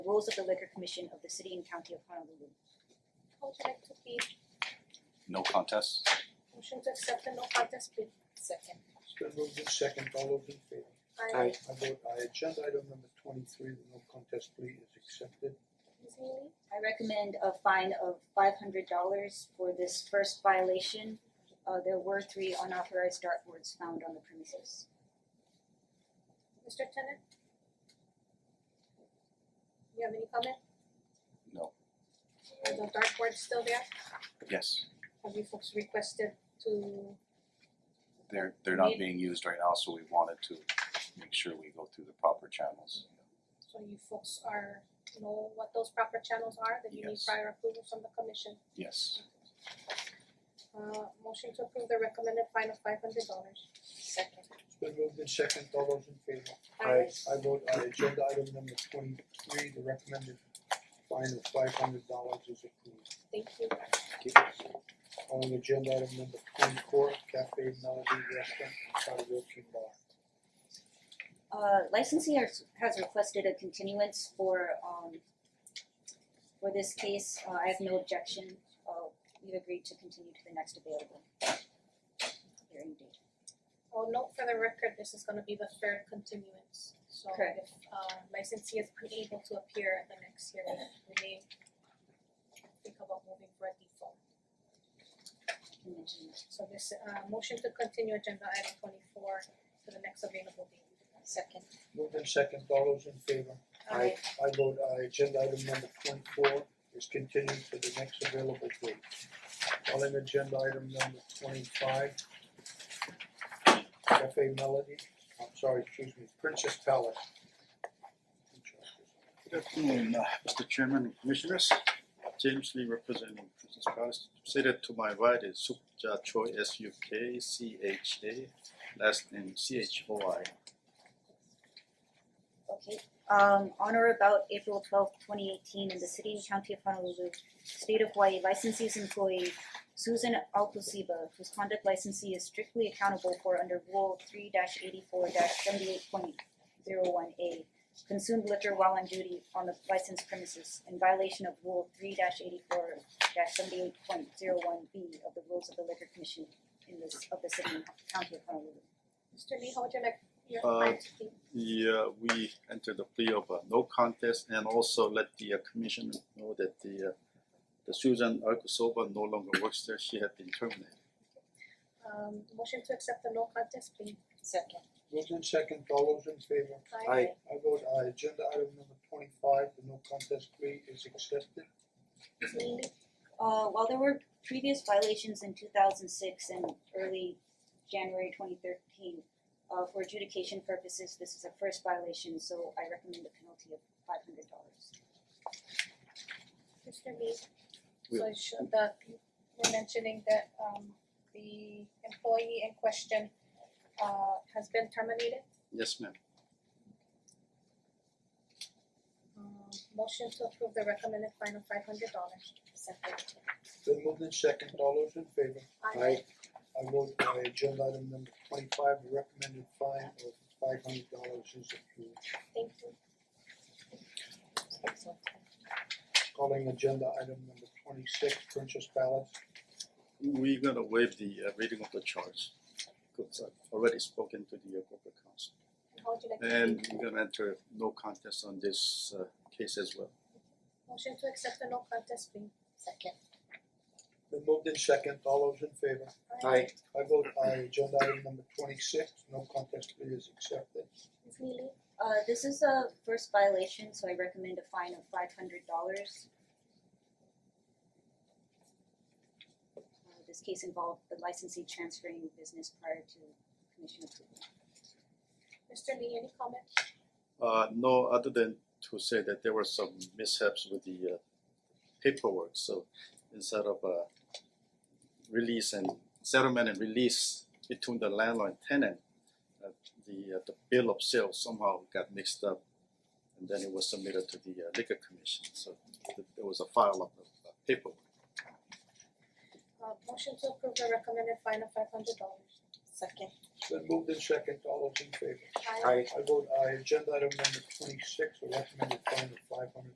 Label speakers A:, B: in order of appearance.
A: rules of the liquor commission of the city and county of Honolulu.
B: Contract to be
C: no contests.
B: motion to accept the no contest plea. Second.
D: It's been moved in second, all those in favor?
B: Aye.
D: I vote aye, agenda item number twenty-three, the no contest plea is accepted.
B: Ms. Neely,
A: I recommend a fine of five hundred dollars for this first violation. Uh there were three unauthorized dartboards found on the premises.
B: Mr. Tennant? You have any comment?
C: No.
B: Are the dartboards still there?
C: Yes,
B: Have you folks requested to,
C: they're they're not being used right now, so we wanted to make sure we go through the proper channels.
B: so you folks are, know what those proper channels are, that you need
C: Yes.
B: prior approval from the commission?
C: Yes,
B: Uh, motion to approve the recommended fine of five hundred dollars. Second.
D: It's been moved in second, all those in favor?
B: Aye.
D: I vote aye, agenda item number twenty-three, the recommended fine of five hundred dollars is approved.
B: Thank you.
D: Calling agenda item number twenty-four, Cafe Melody Restaurant and Karaoke Bar.
A: Uh licensee has has requested a continuance for um for this case. Uh I have no objection. Uh we've agreed to continue to the next available hearing date.
B: I'll note for the record, this is gonna be the third continuance, so
A: Correct.
B: if uh licensee is unable to appear at the next hearing, we may think about moving for a default.
A: Convention.
B: So this uh motion to continue agenda item twenty four to the next available date. Second.
D: Moved in second, all those in favor?
B: Aye.
D: I vote aye, agenda item number twenty-four is continued to the next available date. Calling agenda item number twenty-five. Cafe Melody, I'm sorry, excuse me, Princess Palace.
E: Good afternoon, uh, Mr. Chairman and Commissioners. James Lee representing Princess Palace. Seated to my right is Sukja Choi, S U K C H A, last name C H O I.
A: Okay, um on or about April twelfth, twenty eighteen, in the city and county of Honolulu, state of Hawaii, licensee's employee Susan Alcosiba, whose conduct licensee is strictly accountable for under Rule three eighty-four seventy-eight point zero one A, consumed liquor while on duty on the licensed premises in violation of Rule three eighty-four seventy-eight point zero one B of the rules of the liquor commission in this, of the city and county of Honolulu.
B: Mister Lee, how would you like your
E: Uh,
B: client to be?
E: Yeah, we entered the plea of uh, no contest and also let the uh, commission know that the uh, the Susan Arkusova no longer works there. She had been terminated.
B: Um motion to accept the no contest plea. Second.
D: Moved in second, all those in favor?
B: Aye.
D: I vote aye, agenda item number twenty-five, the no contest plea is accepted.
B: Ms. Neely,
A: Uh while there were previous violations in two thousand six and early January twenty thirteen, uh for adjudication purposes, this is a first violation, so I recommend a penalty of five hundred dollars.
B: Mister Lee,
E: We-
B: so should the, you were mentioning that um the employee in question uh has been terminated?
E: Yes, ma'am.
B: Um motion to approve the recommended fine of five hundred dollars. Second.
D: Then moved in second, all those in favor?
B: Aye.
D: I vote aye, agenda item number twenty-five, the recommended fine of five hundred dollars is approved.
B: Thank you.
D: Calling agenda item number twenty-six, Princess Palace.
E: We're gonna waive the uh, reading of the charge. Because I've already spoken to the uh, corporate counsel.
B: And how would you like to
E: And
B: plead?
E: we're gonna enter no contest on this uh case as well.
B: Motion to accept the no contest plea. Second.
D: Then moved in second, all those in favor?
B: Aye.
D: I vote aye, agenda item number twenty-six, no contest plea is accepted.
B: Ms. Neely,
A: Uh this is a first violation, so I recommend a fine of five hundred dollars. Uh this case involved the licensee transferring business prior to commission approval.
B: Mister Lee, any comment?
E: Uh no, other than to say that there were some mishaps with the uh paperwork, so instead of uh release and settlement and release between the landlord and tenant, uh the uh the bill of sale somehow got mixed up and then it was submitted to the uh, liquor commission, so th- there was a file of uh, paperwork.
B: Uh motion to approve the recommended fine of five hundred dollars. Second.
D: Then moved in second, all those in favor?
B: Aye.
D: I vote aye, agenda item number twenty-six, the recommended fine of five hundred